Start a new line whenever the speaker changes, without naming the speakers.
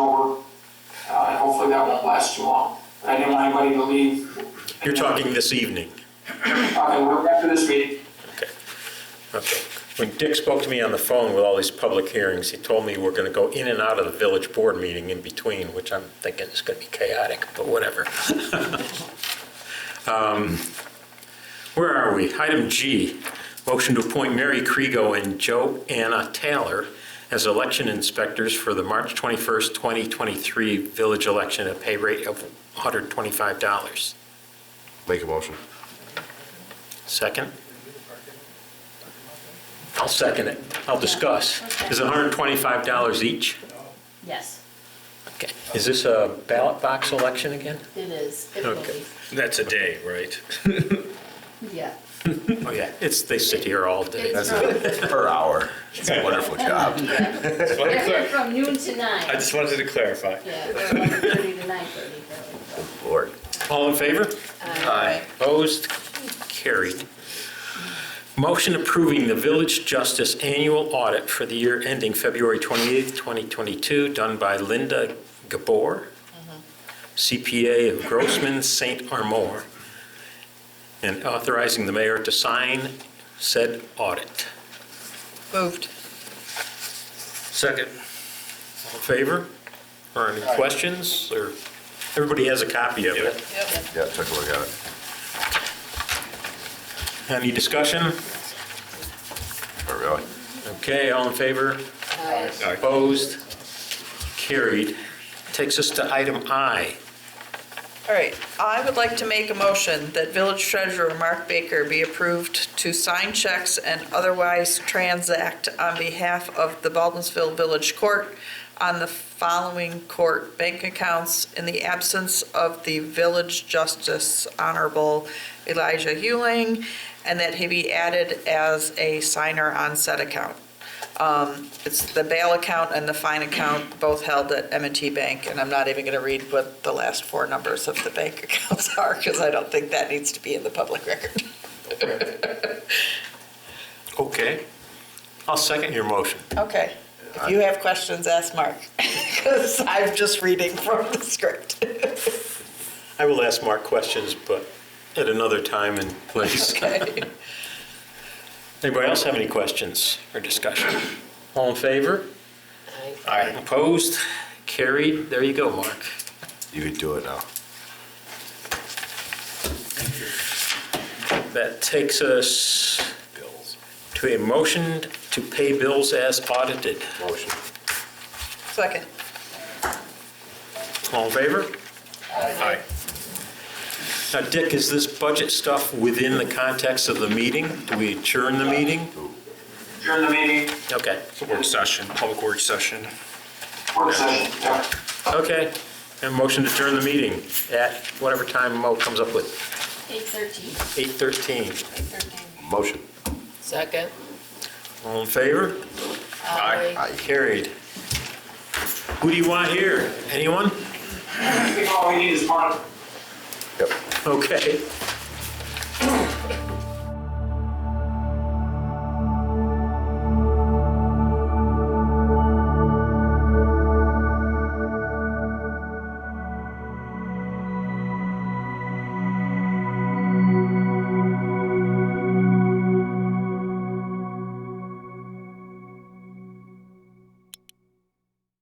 Uh, hopefully that won't last too long. But I didn't want anybody to leave.
You're talking this evening.
Okay, we're after this meeting.
Okay. When Dick spoke to me on the phone with all these public hearings, he told me we're going to go in and out of the village board meeting in between, which I'm thinking is going to be chaotic, but whatever. Um, Where are we? Item G, motion to appoint Mary Krego and Joe Anna Taylor as election inspectors for the March 21st, 2023 village election at a pay rate of $125.
Make a motion.
Second? I'll second it. I'll discuss. Is it $125 each?
Yes,
Okay. Is this a ballot box election again?
it is. It will
Okay.
be.
That's a day, right?
Yeah.
Oh, yeah. It's, they sit here all day.
It's from,
Per hour. It's a wonderful job.
Just wanted
they're
to
here
clar-
from noon to
uh, I
nine.
just wanted to clarify.
Yeah, they're 11:30 to 9:30.
Lord.
All in favor?
Aye.
Opposed? Carried. Motion approving the Village Justice Annual Audit for the year ending February 28th, 2022, done by Linda Gabor, CPA of Grossman St. Armor, and authorizing the mayor to sign said audit.
Moved.
Second.
All in favor? Or any questions? Or, everybody has a copy of it.
Yep.
Yeah, took a look at it.
Any discussion?
Not really.
Okay, all in favor?
Aye.
Opposed? Carried. Takes us to item I.
All right, I would like to make a motion that village treasurer Mark Baker be approved to sign checks and otherwise transact on behalf of the Baldensville Village Court on the following court bank accounts in the absence of the village justice Honorable Elijah Hewling, and that he be added as a signer on said account. Um, It's the bail account and the fine account, both held at m and T Bank, and I'm not even going to read what the last four numbers of the bank accounts are, because I don't think that needs to be in the public record.
Okay. I'll second your motion.
Okay. If you have questions, ask Mark, because I'm just reading from the script.
I will ask Mark questions, but at another time and place.
Okay.
Anybody else have any questions or discussion? All in favor?
Aye.
Opposed? Carried. There you go, Mark.
You could do it now.
That takes us to a motion to pay bills as audited.
Motion.
Second.
All in favor?
Aye.
Now, Dick, is this budget stuff within the context of the meeting? Do we adjourn the meeting?
During the meeting,
Okay.
Work session, public work session.
work session, yeah.
Okay, and motion to adjourn the meeting at whatever time Mo comes up with,
8:13.
8:13.
Motion.
Second.
All in favor?
Aye.
Aye.
Carried. Who do you want here? Anyone?
I think all we need is one.
Yep.
Okay,